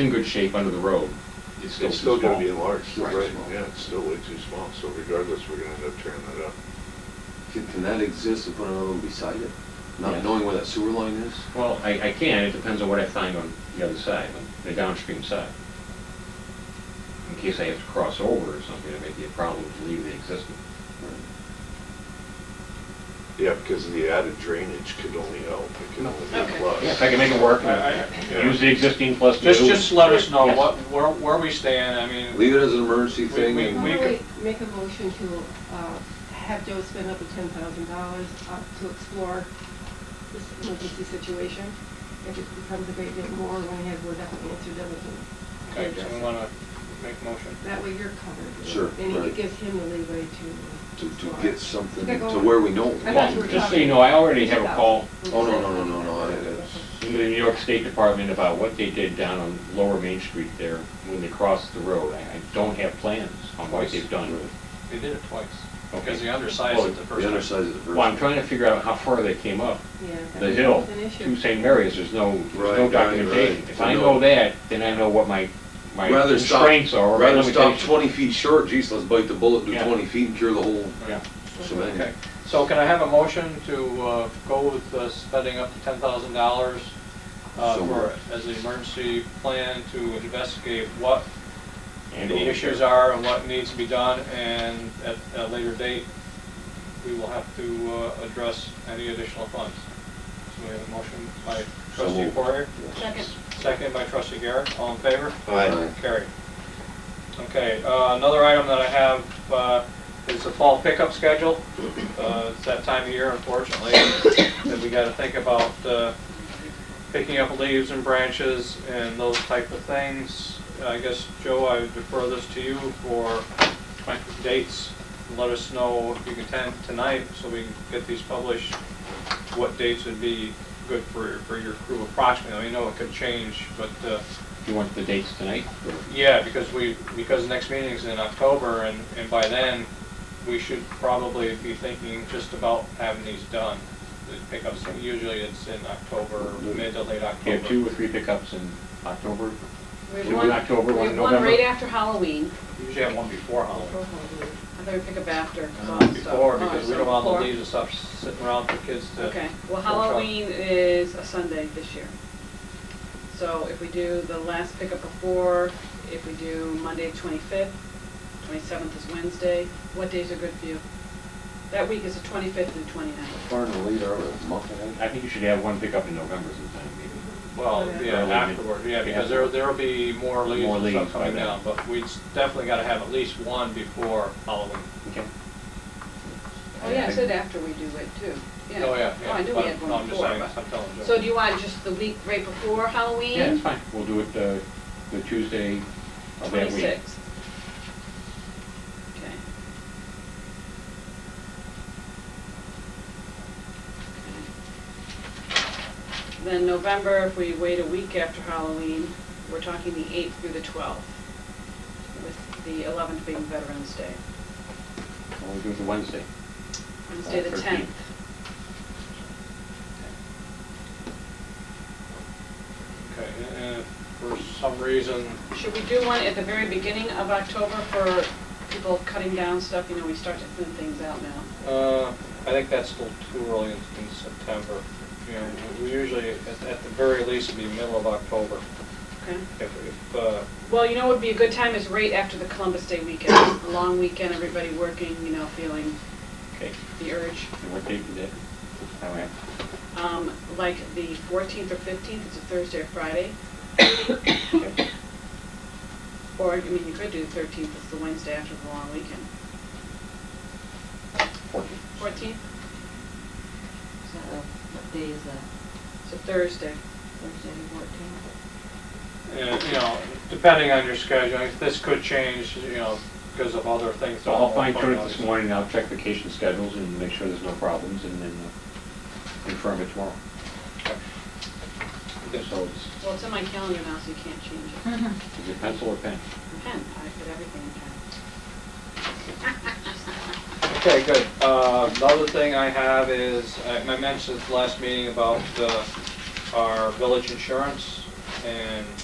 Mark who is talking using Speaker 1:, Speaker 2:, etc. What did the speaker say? Speaker 1: in good shape under the road, it's still
Speaker 2: It's still
Speaker 1: too small.
Speaker 2: gonna be enlarged,
Speaker 1: Right.
Speaker 2: right, yeah, it's still way too small, so regardless, we're gonna end up tearing that up.
Speaker 3: Can, can that exist and put another one beside it?
Speaker 1: Yeah.
Speaker 3: Not knowing where that sewer line is?
Speaker 1: Well, I, I can, it depends on what I find on the other side, on the downstream side. In case I have to cross over or something, it may be a problem to leave the existing.
Speaker 2: Yeah, because the added drainage could only help, it could only be a
Speaker 4: Okay.
Speaker 2: plus.
Speaker 1: Yeah, if I can make it work, uh,
Speaker 2: Yeah.
Speaker 1: use the existing plus new.
Speaker 4: Just, just let us know
Speaker 1: Yes.
Speaker 4: what, where, where we stand, I mean,
Speaker 3: Leave it as an emergency
Speaker 4: We-
Speaker 3: thing
Speaker 4: we-
Speaker 3: and.
Speaker 4: we-
Speaker 5: Why don't
Speaker 4: could-
Speaker 5: we make a motion to uh, have Joe spend up to ten thousand dollars uh, to explore this emergency situation? If it becomes a great deal more, when we have, we'll definitely answer them. we can
Speaker 4: okay,
Speaker 5: address
Speaker 4: so we
Speaker 5: it.
Speaker 4: wanna make a motion.
Speaker 5: That way you're covered.
Speaker 3: Sure,
Speaker 5: And
Speaker 3: right.
Speaker 5: it gives him the leeway to.
Speaker 3: To, to
Speaker 5: explore.
Speaker 3: get something
Speaker 5: Okay, go
Speaker 3: to
Speaker 5: on.
Speaker 3: where we know.
Speaker 5: I thought you were
Speaker 1: Just so
Speaker 5: talking-
Speaker 1: you know, I already have a call
Speaker 3: Oh, no, no, no, no, no, I- it's-
Speaker 1: into the New York State Department about what they did down on Lower Main Street there when they crossed the road. I, I don't have plans on what they've done.
Speaker 4: They did it twice,
Speaker 1: Okay.
Speaker 4: because they undersized it the
Speaker 3: Oh, The
Speaker 4: first time.
Speaker 3: underside of the first.
Speaker 1: Well, I'm trying to figure out how far they came up.
Speaker 5: Yeah, that
Speaker 1: the hill
Speaker 5: was an issue.
Speaker 1: to St. Mary's, there's no, there's
Speaker 3: Right,
Speaker 1: no
Speaker 3: right,
Speaker 1: documentation.
Speaker 3: right.
Speaker 1: If I know that, then I know what my, my
Speaker 3: Rather stop,
Speaker 1: constraints are, or my
Speaker 3: rather stop
Speaker 1: limitations.
Speaker 3: twenty feet short, geez, let's bite the bullet, do
Speaker 1: Yeah.
Speaker 3: twenty feet and cure the whole
Speaker 1: Yeah.
Speaker 3: shebang.
Speaker 4: Okay, so can I have a motion to uh, go with uh, spending up to ten thousand dollars uh,
Speaker 3: So
Speaker 4: for,
Speaker 3: moved.
Speaker 4: as an emergency plan to investigate what
Speaker 1: And
Speaker 4: the
Speaker 1: over.
Speaker 4: issues are and what needs to be done, and at a later date, we will have to uh, address any additional funds. So we have a motion by
Speaker 3: So
Speaker 4: trustee
Speaker 3: moved.
Speaker 4: Poirier,
Speaker 5: Second.
Speaker 4: second by trustee Garrett, all in favor?
Speaker 3: Aye.
Speaker 4: Carried. Okay, uh, another item that I have uh, is the fall pickup schedule. Uh, It's that time of year, unfortunately, that we got to think about uh, picking up leaves and branches and those type of things. I guess, Joe, I would defer this to you for dates. Let us know if you can attend tonight so we can get these published, what dates would be good for for your crew approximately. I know it could change, but uh,
Speaker 1: You want the dates tonight?
Speaker 4: yeah, because we, because next meeting's in October, and, and by then, we should probably be thinking just about having these done. The pickups, usually it's in October, mid to late
Speaker 1: You have two
Speaker 4: October.
Speaker 1: or three pickups in October?
Speaker 6: We have
Speaker 1: Two in
Speaker 6: one-
Speaker 1: October, one in
Speaker 6: We have one right
Speaker 1: November.
Speaker 6: after Halloween,
Speaker 4: Usually have one before Halloween.
Speaker 6: I thought we pick up after. 'cause
Speaker 4: Uh,
Speaker 6: I'm so-
Speaker 4: Before,
Speaker 6: oh,
Speaker 4: because we
Speaker 6: so
Speaker 4: don't want
Speaker 6: before.
Speaker 4: the leaves and stuff sitting around for kids to.
Speaker 6: Okay, well,
Speaker 4: to try.
Speaker 6: Halloween is a Sunday this year. So if we do the last pickup before, if we do Monday twenty-fifth, twenty-seventh is Wednesday, what days are good for you? That week is the twenty-fifth and twenty-ninth.
Speaker 3: Far in the lead, are we, a month ahead?
Speaker 1: I think you should have one pickup in November sometime, maybe.
Speaker 4: Well,
Speaker 6: Oh,
Speaker 4: yeah,
Speaker 1: Early mid-
Speaker 4: afterward, yeah, because
Speaker 1: yeah.
Speaker 4: there, there'll be more leaves
Speaker 1: More
Speaker 4: and
Speaker 1: leaves
Speaker 4: stuff
Speaker 1: by
Speaker 4: coming
Speaker 1: then.
Speaker 4: down, but we definitely gotta have at least one before Halloween.
Speaker 1: Okay.
Speaker 6: Oh, yeah, I said after we do it too.
Speaker 4: Oh, yeah, yeah.
Speaker 6: Oh, I knew we
Speaker 4: but-
Speaker 6: had
Speaker 4: no,
Speaker 6: one
Speaker 4: I'm just
Speaker 6: before.
Speaker 4: saying, I'm telling Joe.
Speaker 6: but- So do you want just the week right before Halloween?
Speaker 1: Yeah, it's fine. We'll do it uh, the Tuesday of that week.
Speaker 6: Twenty-sixth. Okay. Then November, if we wait a week after Halloween, we're talking the eighth through the twelfth, with the eleventh being Veterans Day.
Speaker 1: We'll do it the Wednesday.
Speaker 6: Wednesday, the
Speaker 1: 13th.
Speaker 6: tenth.
Speaker 4: Okay, and if for some reason,
Speaker 6: Should we do one at the very beginning of October for people cutting down stuff? You know, we start to thin things out now.
Speaker 4: uh, I think that's still too early in in September. You know, we- we usually, at, at the very least, it'd be middle of October.
Speaker 6: Okay?
Speaker 4: If, if, uh,
Speaker 6: Well, you know what would be a good time is right after the Columbus Day weekend, a long weekend, everybody working, you know, feeling
Speaker 1: Okay.
Speaker 6: the urge.
Speaker 1: And what date is that? All right.
Speaker 6: Um, like the 14th or 15th, it's a Thursday or Friday,
Speaker 1: Okay.
Speaker 6: or, I mean, you could do the 13th, it's the Wednesday after the long weekend.
Speaker 1: Fourteen.
Speaker 6: 14th,
Speaker 7: So what day is that?
Speaker 6: it's a Thursday.
Speaker 7: Thursday, fourteenth?
Speaker 4: and, you know, depending on your schedule, this could change, you know, because of other things.
Speaker 1: So I'll fine tune it this morning, and I'll check vacation schedules and make sure there's no problems, and then uh, confirm it tomorrow. So it's,
Speaker 6: Well, it's in my calendar now, so you can't change it.
Speaker 1: is it pencil or pen?
Speaker 6: Pen, I put everything in pen.
Speaker 4: Okay, good. Uh, Another thing I have is, I I mentioned at the last meeting about uh, our village insurance, and